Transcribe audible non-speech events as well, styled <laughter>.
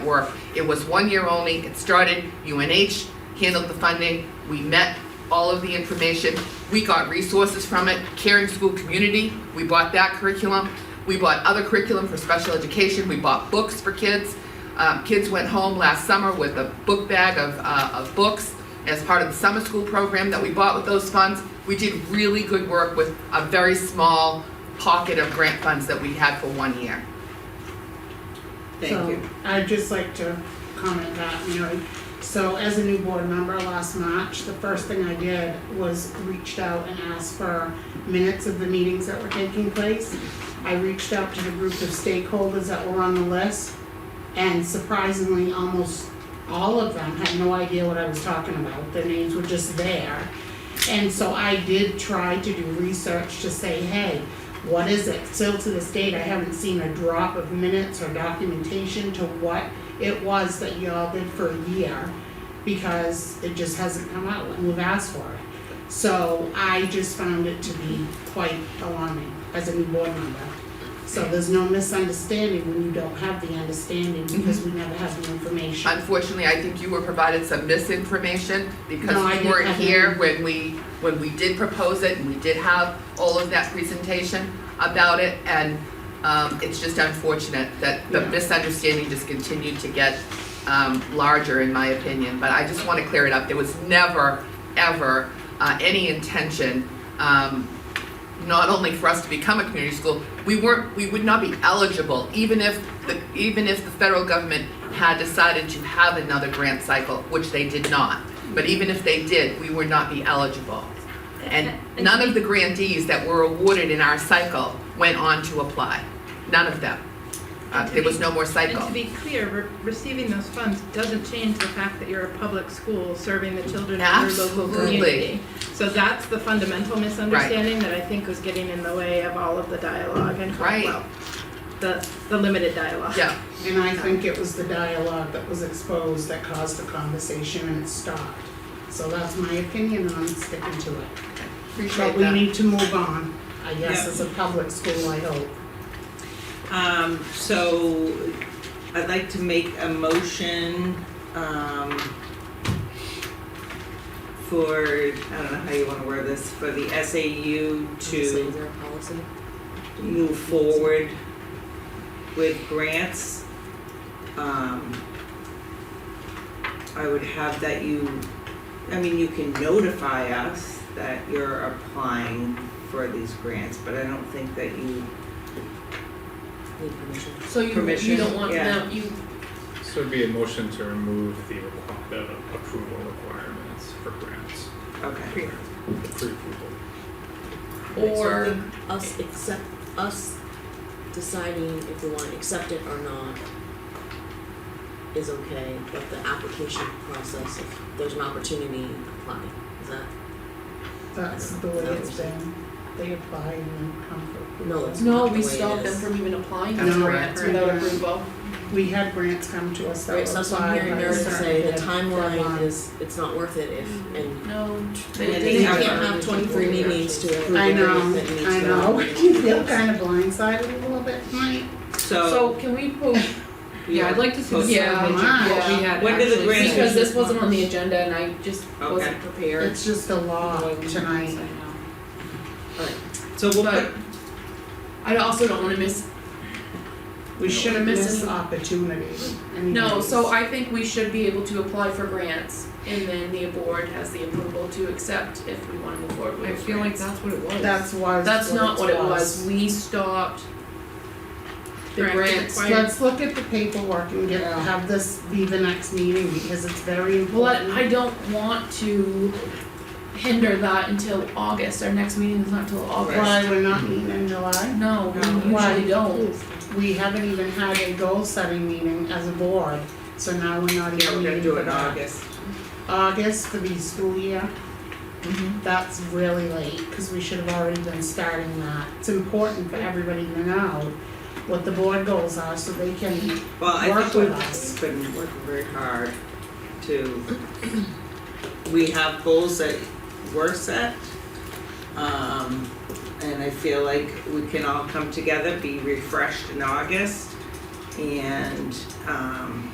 work. It was one year only, it started, UNH handled the funding, we met all of the information, we got resources from it, Caring School Community, we bought that curriculum, we bought other curriculum for special education, we bought books for kids. Um, kids went home last summer with a book bag of, uh, of books as part of the summer school program that we bought with those funds. We did really good work with a very small pocket of grant funds that we had for one year. Thank you. So I'd just like to comment that, you know, so as a new board member last March, the first thing I did was reached out and asked for minutes of the meetings that were taking place. I reached out to the group of stakeholders that were on the list, and surprisingly, almost all of them had no idea what I was talking about, their names were just there. And so I did try to do research to say, hey, what is it? Still to this date, I haven't seen a drop of minutes or documentation to what it was that y'all did for a year because it just hasn't come out and we've asked for it. So I just found it to be quite alarming as a new board member. So there's no misunderstanding when you don't have the understanding because we never have the information. Unfortunately, I think you were provided some misinformation because No, I you didn't weren't have here any. when we, when we did propose it and we did have all of that presentation about it and um, it's just unfortunate that the Yeah. misunderstanding just continued to get um, larger in my opinion. But I just want to clear it up. There was never, ever uh, any intention um, not only for us to become a community school, we weren't, we would not be eligible, even if the, even if the federal government had decided to have another grant cycle, which they did not. But even if they did, we would not be eligible. And none of the grantees that were awarded in our cycle went on to apply, none of them. Uh, there was no more And cycle. to be clear, re- receiving those funds doesn't change the fact that you're a public school serving the children of your local Absolutely. community. So that's the fundamental misunderstanding that I think was getting in the way of all of the dialogue and Right. Hopewell. The, the limited dialogue. Yeah, And I think it was the dialogue that was exposed that caused the conversation and it stopped. So that's my opinion on sticking to it. appreciate But we that. need to move on, I guess, Yeah. as a public school, I hope. Um, so I'd like to make a motion, um, for, I don't know how you wanna word this, for the SAU to move forward with grants. Um, I would have that you, I mean, you can notify us that you're applying for these grants, but I don't think that you So you, you Permission, don't want yeah. them, you, This would be a motion to remove the requ- the approval requirements for grants, Okay, the pre-approval. or us accept, us deciding if we want to accept it or not is okay, but the application process, if there's an opportunity, apply, is that? That's the way it's been. They apply and then come for. No, it's- No, the way we it stopped them is. from even applying That's for No, grants right. without approval. We had grants come to us that were Right, so that's what I'm applied hearing by a Meredith say, the certain timeline deadline. is, it's not worth it if, and No. Yeah, they they can't have- have twenty-three meetings to approve I know, everything that needs to I go. <laughs> know, <laughs> you feel kind of blindsided a little bit tonight. so. So can we post, yeah, I'd like to see what we Post- Yeah, mine. had When did the actually- grants- Because this wasn't on the agenda and I just Okay. wasn't prepared. It's just a law tonight. So, no. So we'll put, But I also don't wanna miss, We shouldn't miss Missing- opportunities. no, so I think we should be able to apply for grants and then the board has the approval to accept if we wanna move forward with grants. what it was. That's why. That's not what it was, we stopped the Correct. grants. Let's look at the paperwork and get, have this be the next meeting because it's very Well, important. I I don't want to hinder that until August, our next meeting is not till August. Why we're not meeting in July? No, we Why? usually don't. We haven't even had a goal setting meeting as a board, so now we're not even yeah, we're gonna meeting do for it in that. August. August for the school year. That's really late, cause we should have already been starting that. It's important for everybody to know what the board goals are, so they can Well, I Work think with we've us. been working very hard to, we have goals that were set. Um, and I feel like we can all come together, be refreshed in August and, um,